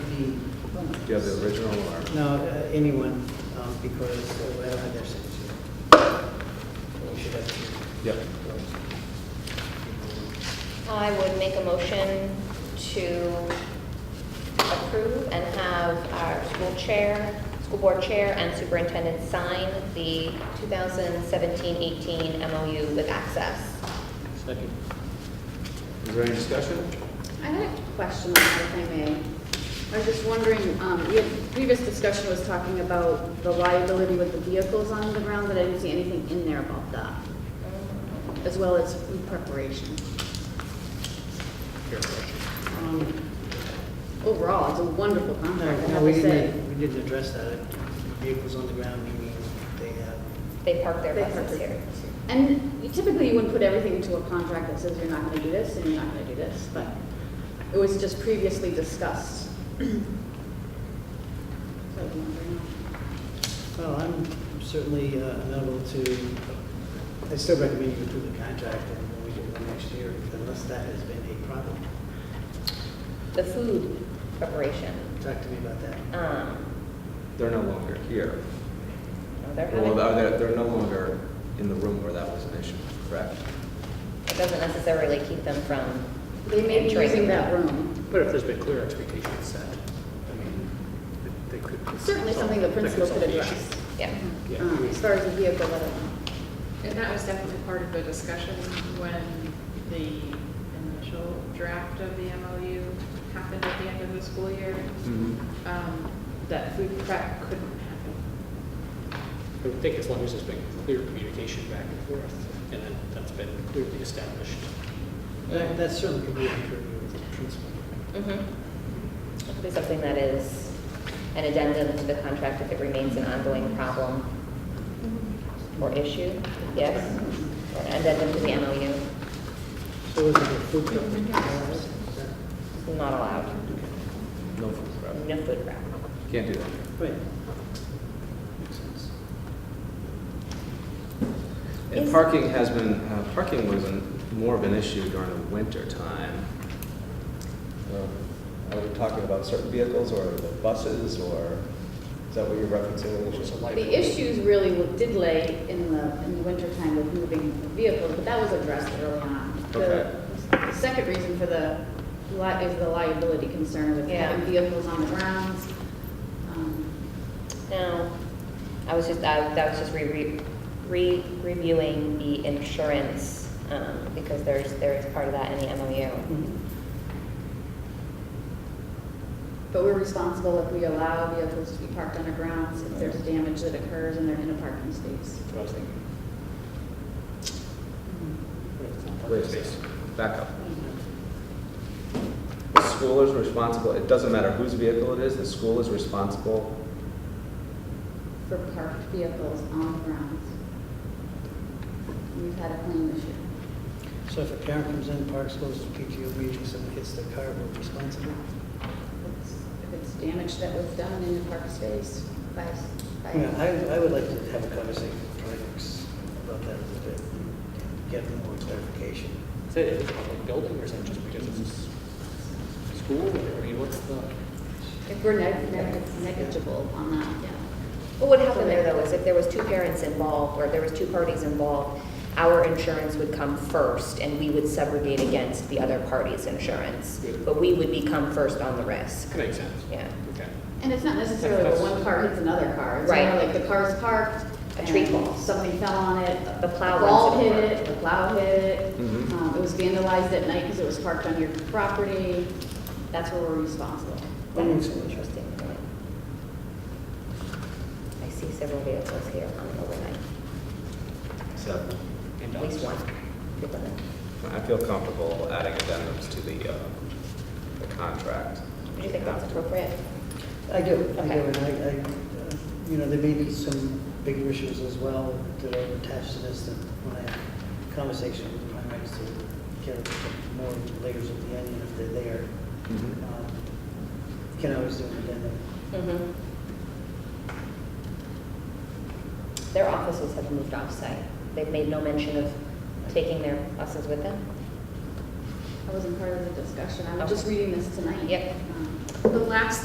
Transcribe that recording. the, Do you have the original or? no, uh, anyone, um, because uh, I don't have their signature. We should have. Yep. I would make a motion to approve and have our school chair, school board chair, and superintendent sign the 2017-18 MOU with Access. Second. Is there any discussion? I had a question, on that, if I may. I was just wondering, um, we had, previous discussion was talking about the liability with the vehicles on the ground, but I didn't see anything in there about that, as well as food preparation. Um, Overall, it's a wonderful contract, I No, have we to say. didn't, we didn't address that. Vehicles on the ground, meaning they have, They park their They buses park their- here. And you- typically, you wouldn't put everything into a contract that says you're not gonna do this and you're not gonna do this, but it was just previously discussed. So I was wondering. well, I'm certainly uh, unable to, I still recommend you approve the contract and we do it next year unless that has been a problem. The food preparation, Talk to me about that. um, They're no longer here. they're Well, are having, they- they're no longer in the room where that was an issue, correct? it doesn't necessarily keep them from They may be entering. using that room. But if there's been clear expectations set, I mean, they they could. It's Certainly something the that principal could solve the address. issue. Yeah. Yeah. Um, As far as the vehicle, I don't know. And that was definitely part of the discussion when the initial draft of the MOU happened at the end of the school year, Mm-hmm. um, that food prep couldn't happen. I would think as long as there's been clear communication back and forth, and then that's been clearly established. That that certainly could be a purview of the principal. Mhm. It could be something that is an addendum to the contract if it remains an ongoing problem or issue, yes? Or An addendum to the MOU So is it a food preparation? is not allowed. No food prep. No food prep. Can't do that. Right. Makes sense. And Is- parking has been, uh, parking was an- more of an issue during the winter time. Um, Are we talking about certain vehicles or the buses or, is that what you're It's a referencing? liability. The issues really wa- did lay in the, in the wintertime with moving vehicles, but that was addressed early on. Okay. The the second reason for the, li- is the liability concern with Yeah. having vehicles on the grounds. Um, No, I was just, I that was just re- re, re- reviewing the insurance, um, because there's, there is part of that in the MOU. But we're responsible if we allow vehicles to be parked on our grounds, if there's damage that occurs and they're in a parking space. That's what I was thinking. What if it's not Wait parking a space? second, back up. The school is responsible, it doesn't matter whose vehicle it is, the school is responsible. for parked vehicles on the grounds. We've had a claim this year. So if a parent comes in, parks, goes to PTO meeting, someone hits their car, we're responsible? It's- If it's damage that was done in the park space by, by. Yeah, I, I would like to have a conversation with parks about that a little bit, get more clarification. Is it is it a public building, or is it just because it's a s- school, or, I mean, what's the? If we're neg- neg- negligible on that, yeah. What would happen there, though, is if there was two parents involved, or there was two parties involved, our insurance would come first, and we would subrogate against the other party's insurance. But we would become first on the risk. That makes sense. Yeah. Okay. And it's not necessarily that one car hits another car. It's more Right. like the car's parked. A tree and falls. Somebody fell on it. The plow a Ball runs hit over. it, the plow hit it. Mhm. Um, It was vandalized at night because it was parked on your property. That's where we're responsible. That is an interesting point. I see several vehicles here on overnight, So And uh, at least dogs. one. I feel comfortable adding addendums to the, uh, the contract. Do you think that's appropriate? I do, I do, Okay. and I, I, uh, you know, there may be some bigger issues as well that are attached to this that when I have conversation with primaries to get more layers of the onion if they're there. Mhm. um, Can always do an addendum. Mhm. Their offices have moved off-site. They've made no mention of taking their buses with them? I wasn't part of the discussion. I was just Okay. reading this tonight. Yep. Um, The last